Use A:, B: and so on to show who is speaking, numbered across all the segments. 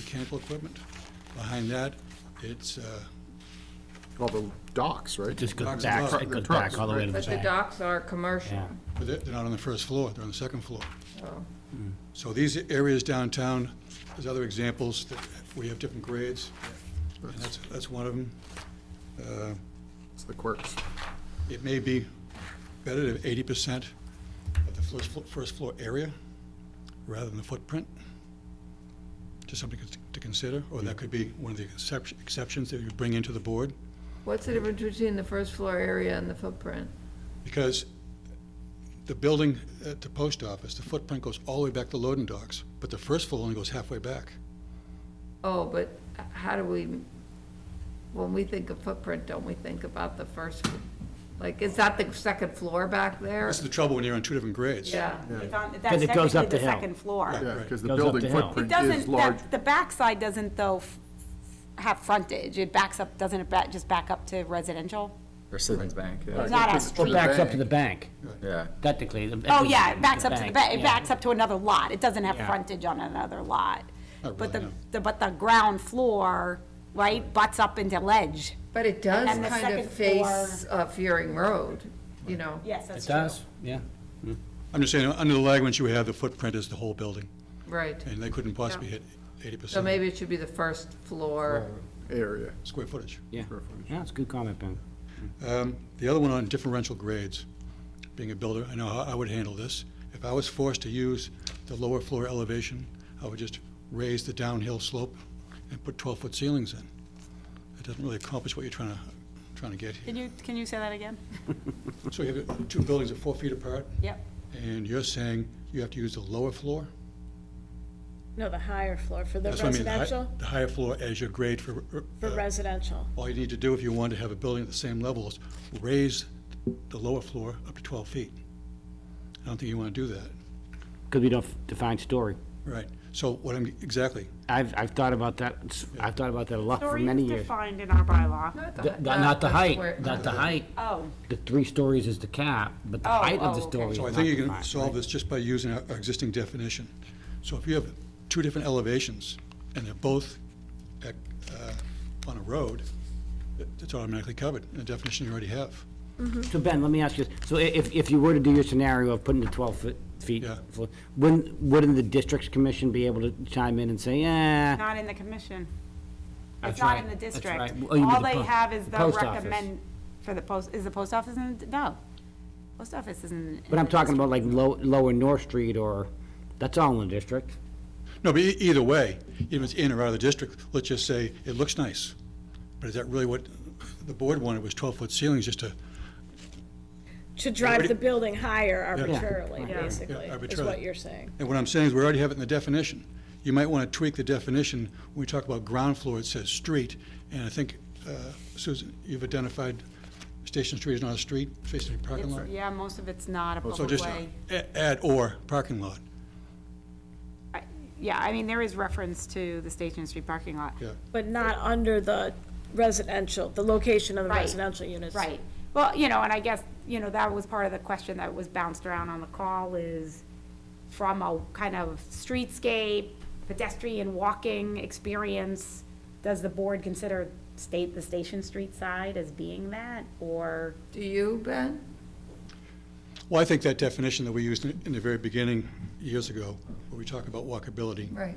A: mechanical equipment. Behind that, it's, uh,
B: All the docks, right?
C: Just goes
A: Boxes
C: back,
A: up.
C: it goes
B: Trucks,
C: back all the way
B: right.
C: to the
D: But the
C: back.
D: docks are commercial,
C: Yeah,
A: but they're they're not on the first floor, they're on the second floor. Hmm. So these areas downtown, there's other examples that we have different grades, and that's, that's one of them. Uh,
B: It's the quirks.
A: It may be better to have eighty percent of the first, flo- first floor area rather than the footprint. Just something to consider, or that could be one of the exception- exceptions that you bring into the board.
D: What's the difference between the first floor area and the footprint?
A: Because the building at the post office, the footprint goes all the way back to loading docks, but the first floor only goes halfway back.
D: Oh, but how do we, when we think of footprint, don't we think about the first, like, is that the second floor back there?
A: That's the trouble when you're on two different grades.
D: Yeah,
E: It's on- That's
C: it goes
E: technically
C: up
E: the
C: the hill.
E: second floor.
B: Yeah, because the
C: Goes up
B: building
C: the hill.
E: It
B: footprint is
E: doesn't,
B: large.
E: that- the backside doesn't though f- have frontage. It backs up, doesn't it back, just back up to residential?
F: Or Citizens Bank, yeah.
E: It's not
B: to-
E: as
B: to
C: or
B: the
E: street.
C: backs up to the
B: bank.
C: bank,
F: Yeah.
C: technically. the-
E: Oh, yeah, it backs up to the, ba- it
C: yeah.
E: backs up to another lot. It doesn't have
C: Yeah.
E: frontage on another lot.
A: Not really,
E: But the,
A: no.
E: the- but the ground floor, right, butts up into ledge.
D: but it does
E: And the
D: kind of
E: second
D: face uh, Fearing Road, you know?
E: Yes, that's
C: It does, yeah.
A: I'm just saying, under the language you have, the footprint is the whole building,
D: Right,
A: and they couldn't possibly hit eighty
D: so
A: percent
D: maybe it should be the first floor.
B: Area.
A: square footage.
C: Yeah, yeah, it's a good comment, Ben.
A: Um, The other one on differential grades, being a builder, I know how I would handle this. If I was forced to use the lower floor elevation, I would just raise the downhill slope and put 12-foot ceilings in. It doesn't really accomplish what you're trying to, trying to get here.
E: Can you, can you say that again?
A: So you have two buildings that are four feet apart,
E: Yep.
A: and you're saying you have to use the lower floor?
G: No, the higher floor for the
A: That's what I mean, the hi-
G: residential,
A: The higher floor as your grade for,
G: for residential.
A: all you need to do if you want to have a building at the same level is raise the lower floor up to 12 feet. I don't think you want to do that.
C: Because we don't define story.
A: Right, so what I'm, exactly,
C: I've, I've thought about that, It's- I've thought about that a lot for many years.
E: defined in our bylaw.
C: The- the- Not the
D: where-
C: height, not the height.
E: Oh.
C: The three stories is the cap, but the
E: Oh,
C: height of the
E: oh, okay.
C: story is
A: so I
C: not
A: think you can
C: defined,
A: solve
C: right?
A: this just by using our our existing definition. So if you have two different elevations, and they're both at, uh, on a road, it- it's automatically covered in the definition you already have.
C: So Ben, let me ask you, this. so i- if, if you were to do your scenario of putting the twelve foot feet,
A: Yeah.
C: flo- wouldn't, wouldn't the district's commission be able to chime in and say, eh?
E: Not in the commission.
C: That's
E: It's not
C: right.
E: in the
C: That's
E: district.
C: right. Oh, you mean
E: All
C: the
E: they
C: po-
E: have is
C: the
E: the
C: post office.
E: recommend, for the post, is the post office in, the- no. Post office isn't. in
C: But I'm
E: the
C: talking about
E: district.
C: like low, lower North Street or, that's all in the district.
A: No, but e- either way, even if it's in or out of the district, let's just say, it looks nice. But is that really what the board wanted, was 12-foot ceilings just to
G: To drive the building higher arbitrarily,
C: Yeah.
G: basically, is
A: arbitrarily.
G: what you're saying.
A: And what I'm saying is, we already have it in the definition. You might want to tweak the definition. When we talk about ground floor, it says street, and I think, uh, Susan, you've identified Station Street is not a street, Station Street parking lot?
E: It's- Yeah, most of it's not a
A: So
E: public
A: just
E: way.
A: a- add or parking lot.
E: I- Yeah, I mean, there is reference to the Station Street parking lot.
A: Yeah.
G: But not under the residential, the location of the
E: Right.
G: residential units.
E: Right. Well, you know, and I guess, you know, that was part of the question that was bounced around on the call is from a kind of streetscape, pedestrian walking experience, does the board consider state, the Station Street side as being that? Or,
D: Do you, Ben?
A: Well, I think that definition that we used in in the very beginning, years ago, where we talk about walkability,
D: Right.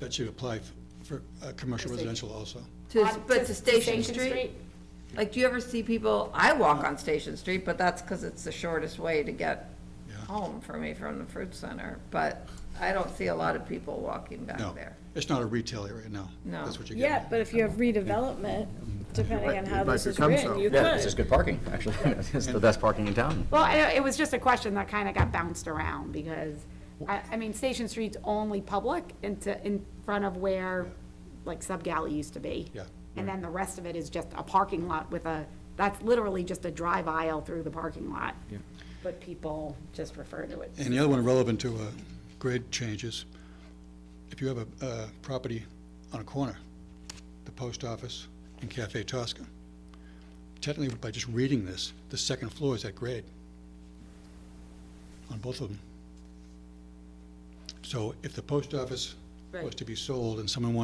A: that should apply f- for uh, commercial residential also.
D: To,
E: On-
D: but
E: to-
D: to
E: to
D: Station
E: Station
D: Street?
E: Street?
D: Like, do you ever see people, I walk on Station Street, but that's because it's the shortest way to get
A: Yeah.
D: home for me from the fruit center, but I don't see a lot of people walking back
A: No,
D: there.
A: it's not a retail area, no.
D: No.
A: That's what you're getting
G: Yeah,
A: at.
G: but if you have redevelopment, depending on how
B: It might
G: this is
B: become
G: written,
B: so.
G: you
F: Yeah, it's just
G: could.
F: good parking, actually. It's the best parking in town.
E: well, I- it was just a question that kind of got bounced around because, I, I mean, Station Street's only public into, in front of where, like, Sub Galley used to be.
A: Yeah.
E: And then the rest of it is just a parking lot with a, that's literally just a drive aisle through the parking lot. But people just refer to it.
A: And the other one relevant to uh, grade changes, if you have a uh, property on a corner, the post office and Cafe Tosca, technically by just reading this, the second floor is at grade on both of them. So if the post office
D: Right.
A: was to be sold and someone wanted